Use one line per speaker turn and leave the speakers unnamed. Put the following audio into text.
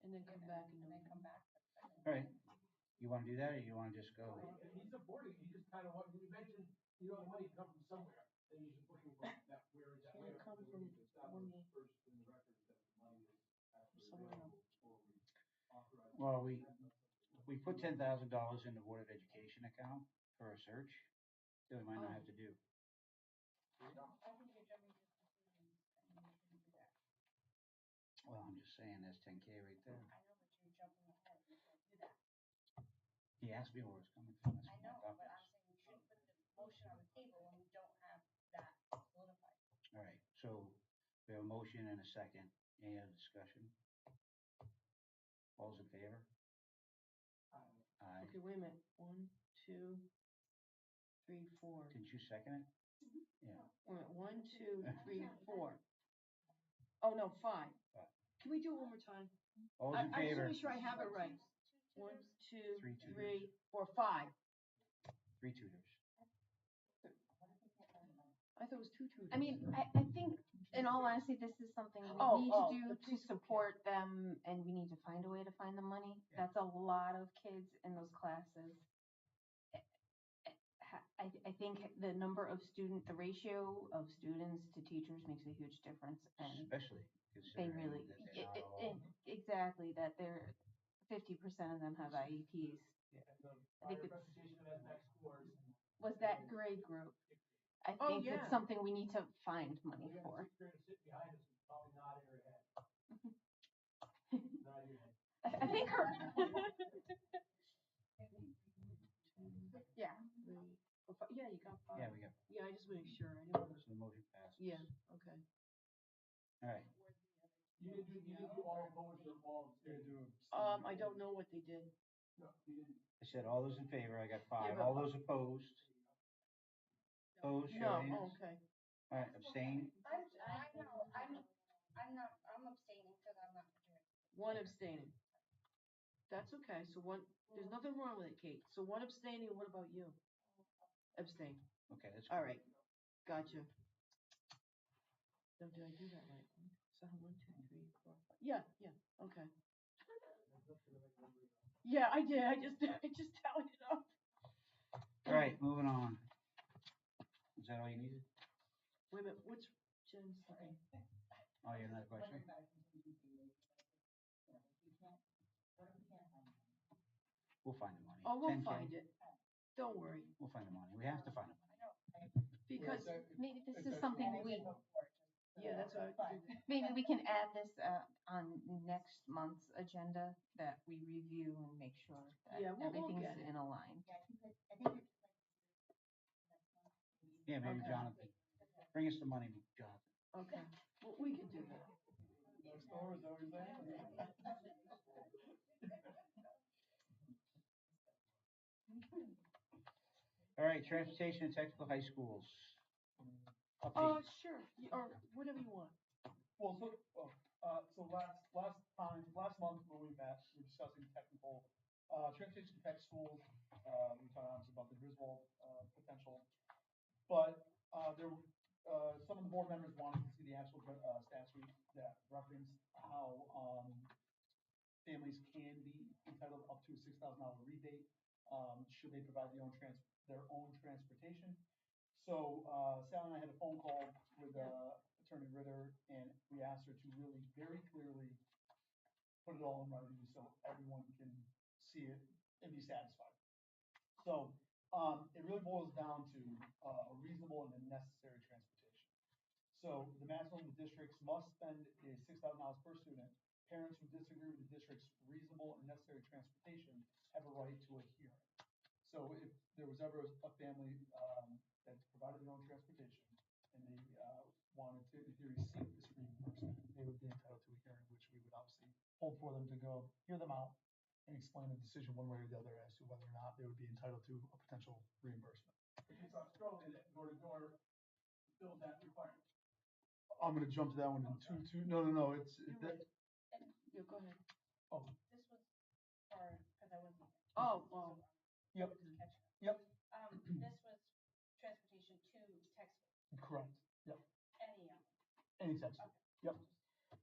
And then come
and
back and
then- And then
open.
come back. for the second.
All right. You wanna do that, or you wanna just go?
Well, If he's supporting, you just kind of want, you mentioned, you know, the money comes from somewhere, then you should put it from that, where is that?
Can it
where?
come
We
from
need to establish
one-
First in the record that the money is actually
somewhere
available before we authorize.
Well, we, we put ten thousand dollars in the Board of Education account for a search, that we might not have to do.
I think you're jumping to conclusions and you shouldn't do that.
Well, I'm just saying, that's ten K right there.
I know, but you're jumping ahead. You can't do that.
He asked me where it's coming from. that's
I
my
know,
thought
but I'm
process.
saying you shouldn't put the motion on the table when we don't have that solidified.
All right, so we have a motion and a second, any other discussion? All's in favor? Aye.
Okay, wait a minute. One, two, three, four.
Didn't you second it? Yeah,
Wait, a minute. one, two, three, four. Oh, no, five.
Five.
Can we do it one more time?
all's
I-
in
I just wanna
favor,
make sure I have it right.
Two
One,
tutors,
two,
Three tutors.
three, four, five.
three tutors.
I thought it was two tutors.
I mean, I, I think, in all honesty, this is something we
Oh,
need
oh, the
to do to
preschool kid.
support them, and we need to find a way to find the money.
Yeah.
That's a lot of kids in those classes. Eh, eh, ha- I, I think the number of student, the ratio of students to teachers makes a huge difference, and
Especially
they
considering
really,
that
e-
they're not
e-
all.
e- exactly, that they're, fifty percent of them have E IEPs.
And the
I think
prior
it's-
presentation at next course.
Was that grade group? I
Oh,
think
yeah.
it's something we need to find money
We have
for.
a teacher to sit behind us, who's probably nodding her head.
Mm-hmm.
Nodding her head.
I I think her. Yeah.
Three, four, five.
Yeah,
Yeah, you got five.
we Mm-hmm. got,
Yeah, I just make sure. I didn't wanna-
so the motion passes.
Yeah, okay.
All right,
You didn't do, you didn't do all motion or all.
Um, I don't know what they did.
No, you didn't.
I said all those in favor, I got five,
but-
all those opposed? Opposed, show
No,
of hands.
oh, okay.
All right, abstain,
I'm, I know, I'm, I'm not, I'm abstaining because I'm not doing it.
One abstaining. That's okay, so one, there's nothing wrong with it, Kate. So one abstaining, what about you? Abstain,
okay, that's.
all right, gotcha. No, did I do that right? So one, two, three, four, five, yeah, yeah, okay. Yeah, I did, I just, I just tallied it up.
All right, moving on. Is that all you needed?
Wait a minute, what's Jen's, okay,
Oh, you have another question? We'll find the money.
oh, we'll
10K.
find it. Don't worry,
We'll find the money, we have to find the money.
because,
Maybe this
Exactly.
is something
And I
we,
yeah, that's what I,
Fine.
maybe we can add this, uh, on next month's agenda that we review and make sure that
Yeah, we'll- we'll
everything's
get it.
in a line.
Yeah, I think that, I think it's like.
Yeah, maybe
Okay.
Jonathan, bring us the money, Jonathan.
okay, well, we can do that.
All right, transportation and technical high schools.
Uh,
Update,
sure, y- or whatever you want.
Well, so, oh, uh, so last, last time, last month when we met, we were discussing technical, uh, transportation tech schools, uh, we talked about the Griswold, uh, potential. But, uh, there, were, uh, some of the board members wanted to see the actual, uh, statute that referenced how, um, families can be entitled up to a six thousand dollar rebate, um, should they provide their own trans, their own transportation. So, uh, Sally and I had a phone call with, uh, Attorney Ritter, and we asked her to really very clearly put it all in writing so everyone can see it and be satisfied. So, um, it really boils down to, uh, a reasonable and a necessary transportation. So the maximum the districts must spend is six thousand dollars per student. Parents who disagree with the district's reasonable and necessary transportation have a right to a hearing. So if there was ever a family, um, that provided their own transportation and they, uh, wanted to, if they received this reimbursement, they would be entitled to a hearing, which we would obviously hold for them to go hear them out and explain the decision one way or the other as to whether or not they would be entitled to a potential reimbursement. It's Australia that door to door fills that requirement. I'm gonna jump to that one in two, two, no, no, no, it's,
You're
that,
right. Yeah, go ahead.
This was for, because I wasn't. there. um,
Oh, oh.
Yep.
Just catch up.
Yep.
Um, this was transportation to Texas, E
correct,
any of
any text,
Okay.
yep,